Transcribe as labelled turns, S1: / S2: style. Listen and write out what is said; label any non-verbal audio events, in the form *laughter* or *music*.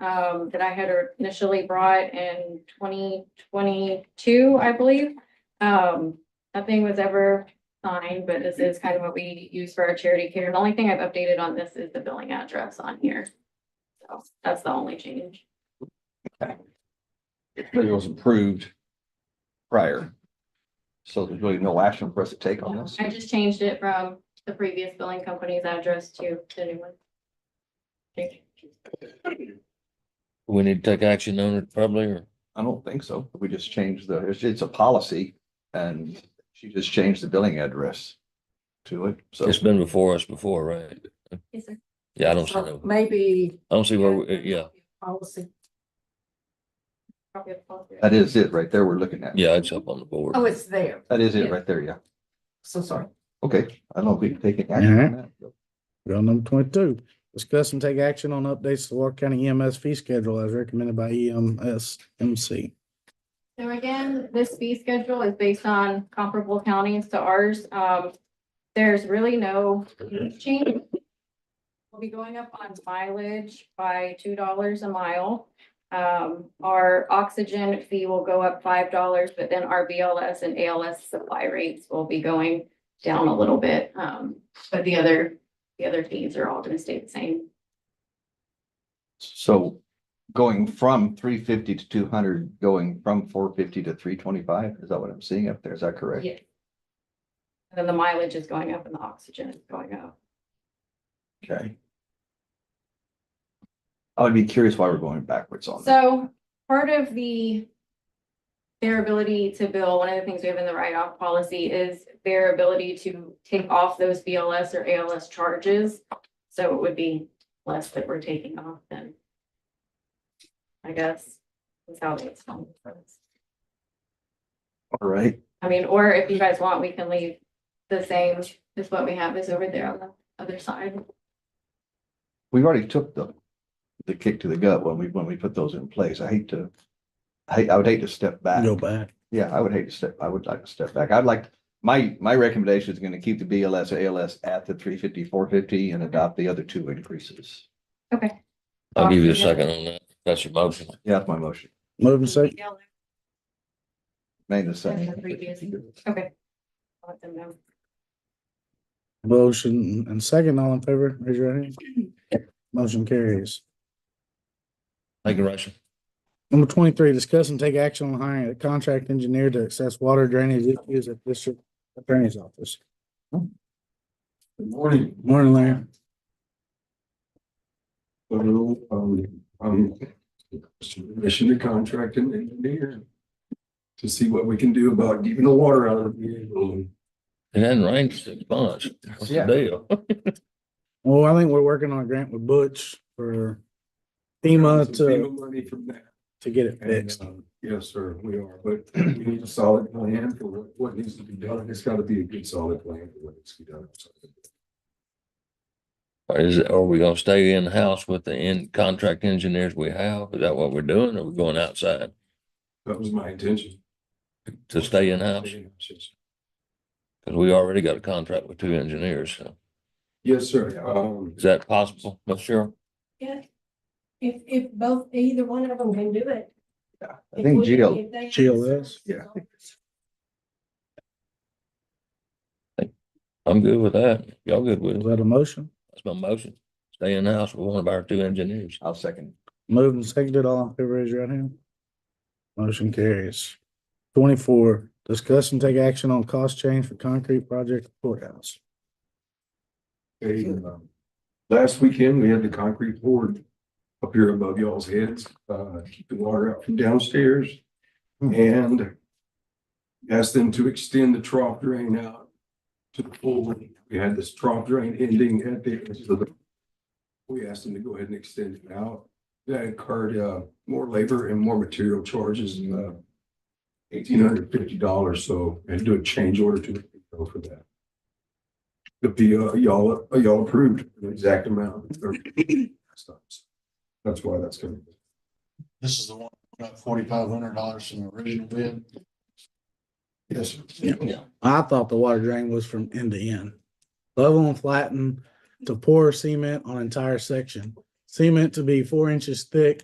S1: um, that I had initially brought in twenty twenty-two, I believe. Um, nothing was ever signed, but this is kind of what we use for our charity care. The only thing I've updated on this is the billing address on here. So that's the only change.
S2: It was approved prior. So there's really no action for us to take on this.
S1: I just changed it from the previous billing company's address to the new one. Okay.
S3: We need to take action on it probably, or
S2: I don't think so. We just changed the, it's, it's a policy and she just changed the billing address to it. So
S3: it's been before us before, right?
S1: Yes, sir.
S3: Yeah, I don't see,
S4: So
S3: no-
S4: Maybe.
S3: I don't see where, we- uh, yeah,
S4: Policy.
S1: Copy of the policy.
S2: that is it right there we're looking at.
S3: yeah, it's up on the board.
S4: Oh, it's there.
S2: That is it right there, yeah.
S4: So sorry.
S2: Okay, I don't think we can take action on that.
S5: Bill number twenty-two, discuss and take action on updates to Walker County EMS fee schedule as recommended by E EMSMC.
S1: So again, this fee schedule is based on comparable counties to ours. Um, there's really no change. We'll be going up on mileage by two dollars a mile. Um, our oxygen fee will go up five dollars, but then our BLS and ALS supply rates will be going down a little bit. Um, but the other, the other fees are all gonna stay the same.
S2: So going from three fifty to two hundred, going from four fifty to three twenty-five, is that what I'm seeing up there? Is that correct?
S1: Yeah. And then the mileage is going up and the oxygen is going up.
S2: Okay. I would be curious why we're going backwards on that.
S1: So part of the. Their ability to bill, one of the things we have in the write-off policy is their ability to take off those BLS or ALS charges. So it would be less that we're taking off then. I guess. That's how it's done.
S2: All right,
S1: I mean, or if you guys want, we can leave the same as what we have is over there on the other side.
S2: we already took the, the kick to the gut when we, when we put those in place. I hate to. I, hate- I would hate to step back.
S5: Go back.
S2: Yeah, I would hate to step, I would like to step back. I'd like, my, my recommendation is gonna keep the BLS, ALS at the 350, 450, and adopt the other two increases.
S1: Okay.
S3: I'll give you a second on that. That's your motion.
S2: Yeah, that's my motion.
S5: Moving second,
S1: Yeah, I'll
S2: Made the
S1: And
S2: second.
S1: the previous. Let them know.
S5: motion and second, all in favor, raise your hand. Motion carries.
S3: Thank you, Rachel.
S5: Number twenty-three, discuss and take action on hiring a contract engineer to assess water drainage issues at district attorney's office.
S6: Good morning.
S5: Morning, Larry.
S6: Hello, um, I'm commissioned to contract an engineer to see what we can do about getting the water out of the building.
S3: It hadn't rained six months. What's the
S2: Yeah.
S3: deal? *laughs*
S5: Well, I think we're working on a grant with Butch for FEMA
S6: Some
S5: to,
S6: FEMA Money from that.
S5: to get it
S6: And,
S5: fixed.
S6: um, Yes, sir, we are, but we need a solid plan for what, what needs to be done. It's gotta be a good solid plan for what needs to be done.
S3: Or Is, it- are we gonna stay in-house with the in contract engineers we have? Is that what we're doing? Or we going outside
S6: That was my intention.
S3: to stay in-house? Cause we already got a contract with two engineers. so.
S6: Yes, sir, um.
S3: Is that possible, Miss Cheryl?
S7: Yeah. If, if both, either one of them can do it.
S2: I think
S7: If we-
S2: GL,
S7: if they-
S5: GLS.
S2: Yeah.
S3: I'm good with that. Y'all good with
S5: Is
S3: it?
S5: that a motion?
S3: That's my motion. Stay in-house with one of our two engineers.
S2: I'll second.
S5: Moved and seconded, all in favor, raise your right hand. Motion carries. Twenty-four, discuss and take action on cost change for concrete project courthouse.
S6: Hey, um, last weekend, we had the concrete poured up here above y'all's heads, uh, to keep the water out from downstairs. And asked them to extend the trough drain out to the full length. We had this trough drain ending at the, edge of the- we asked them to go ahead and extend it out. That incurred, uh, more labor and more material charges, uh, eighteen hundred fifty dollars, so, and do a change order to go for that. The PO, uh, y'all, y'all approved the exact amount. or- That's why that's coming.
S8: This is the one, about forty-five hundred dollars from the original bid.
S6: Yes.
S5: I thought the water drain was from end to end. Level and flatten to pour cement on entire section. Cement to be four inches thick